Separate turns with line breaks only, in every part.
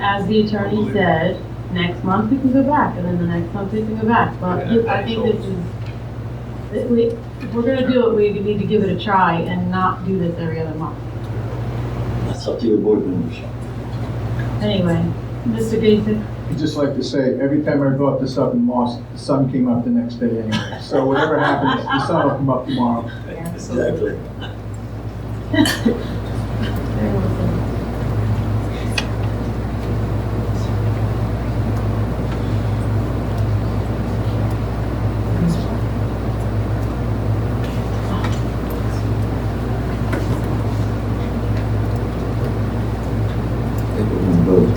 as the attorney said, next month we can go back, and then the next month we can go back, but you- I think this is, that we, if we're gonna do it, we need to give it a try and not do this every other month.
That's up to your board members.
Anyway, Mr. Gaisick,
I'd just like to say, every time I brought this up in March, the sun came up the next day anyway. So whatever happens, the sun will come up tomorrow.
Exactly. I think we're gonna vote.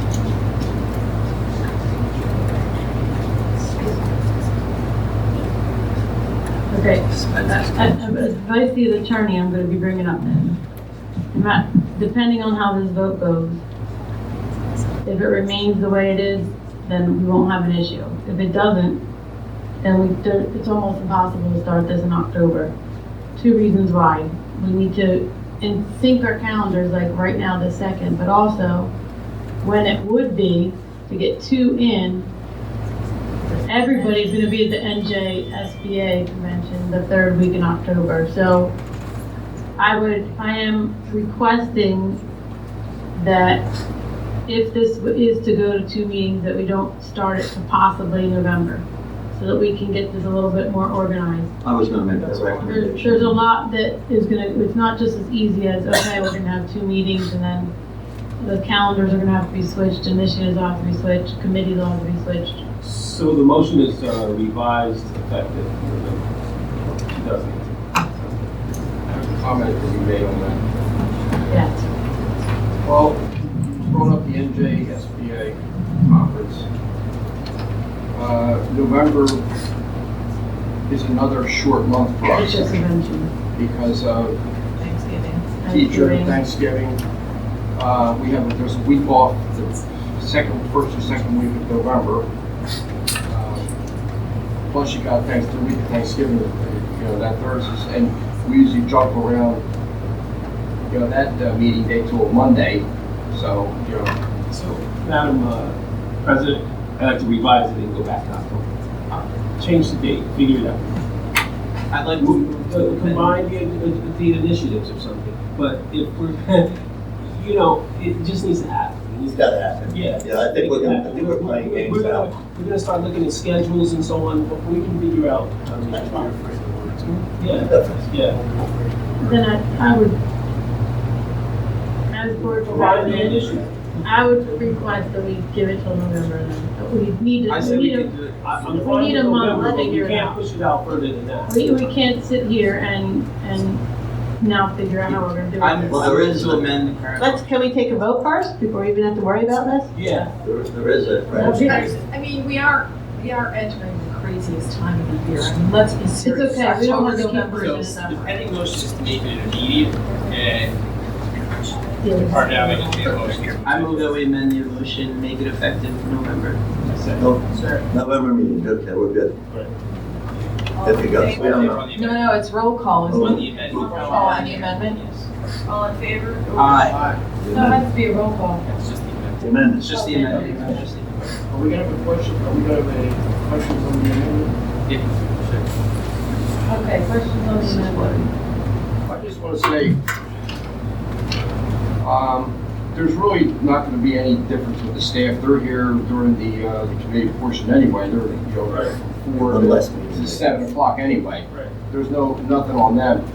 okay, Uh, As vice the attorney, I'm gonna be bringing up this. Ma- Depending on how this vote goes, if it remains the way it is, then we won't have an issue. If it doesn't, then we, there- it's almost impossible to start this in October. Two reasons why. We need to in- sync our calendars like right now, the second, but also when it would be to get two in everybody's gonna be at the NJSBA convention the third week in October, so I would, I am requesting that if this is to go to two meetings, that we don't start it to possibly November, so that we can get this a little bit more organized.
I was gonna make that
There's,
recommendation.
there's a lot that is gonna, it's not just as easy as, okay, we're gonna have two meetings and then the calendars are gonna have to be switched, initiatives have to be switched, committees all have to be switched.
So the motion is uh, revised effective November 2018.
comment that you made on that.
Yes.
Well, brought up the NJSBA conference. Uh, November is another short month for us
Teacher convention.
because of
Thanksgiving.
teacher
Thanksgiving.
Thanksgiving. Uh, we have, there's a week off, the second, first or second week of November. Uh, Plus you got thanks, the week of Thanksgiving, you know, that Thursday, and we usually jump around, you know, that uh, meeting day to a Monday, so, you know,
So, Madam uh, President, I'd like to revise it and go back to October. Change the date, figure it out. Uh, I'd like to combine the, uh, the initiatives or something, but if we're, you know, it just needs to happen. It needs
It's gotta happen.
Yeah.
Yeah, I think we're gonna, I think we're playing
We're-
games
we're gonna-
now.
We're gonna start looking at schedules and so on, but we can figure out. um, Yeah, yeah.
Then I, I would, as board
Provide the
president,
initiative.
I would request that we give it till November then. But We need
I
to, we
said we
need to,
could do it. I- I'm
we
fine
need
with
a month,
November,
we'll
but
figure
you
it
can't
out.
push it out further than that.
we, we can't sit here and, and now figure out how we're gonna do
Well, there is, there
amend the
it.
current.
Let's, can we take a vote first before we even have to worry about this?
Yeah,
there is a, right?
I mean, we are, we are entering the craziest time of the year. I mean, let's be
It's
serious.
okay, we don't
October,
want to keep
November,
bringing this up.
December.
The pending motion is to make it immediate and
Yes.
part now we can make a motion.
I move that we amend the motion, make it effective November.
No, November meeting, okay, we're good. If it goes, we don't know.
On the
No, no, it's roll call.
Oh.
isn't it?
On the amendment.
Oh, on the amendment?
All in favor?
Aye.
So it has to be a roll call.
It's just the amendment.
Amendments.
It's just the amendment. Just the-
Are we gonna have a question, are we gonna have a question from the amendment?
Yeah.
Okay, questions on the amendment?
I just want to say, um, there's really not going to be any difference with the staff. They're here during the, uh, the committee portion anyway. They're, you know, four
One less meeting.
to seven o'clock anyway.
Right.
There's no, nothing on them.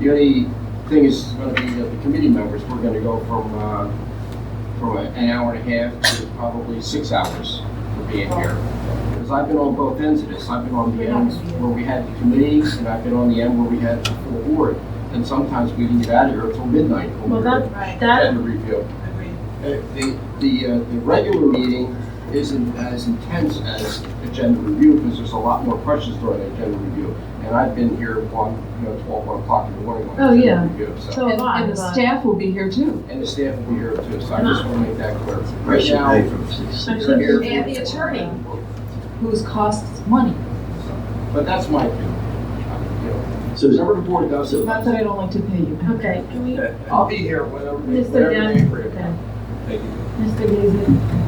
The only thing is going to be that the committee members, we're going to go from, uh, from a- an hour and a half to probably six hours for being here. Because I've been on both ends of this. I've been on the end where we had the committees and I've been on the end where we had the full board. And sometimes we didn't get out of here until midnight. when we
Well,
were
that,
Right.
that,
at the review. Uh, The, the, uh, the regular meeting isn't as intense as agenda review because there's a lot more questions during agenda review. And I've been here one, you know, twelve, one o'clock in the morning
Oh,
on
yeah.
agenda review, so.
so
And
am I,
and the
but-
staff will be here too.
And the staff will be here too, so I just want to make that clear.
We
Right
should
now,
pay from six, six.
Actually,
here-
And the attorney, whose costs money.
But that's my opinion. You know,
So,
Whatever the board does,
Not that I don't like to pay you.
okay, can we,
I'll be here whenever,
Mr.
whatever they
Young,
agree upon.
okay. Mr. Gaisy.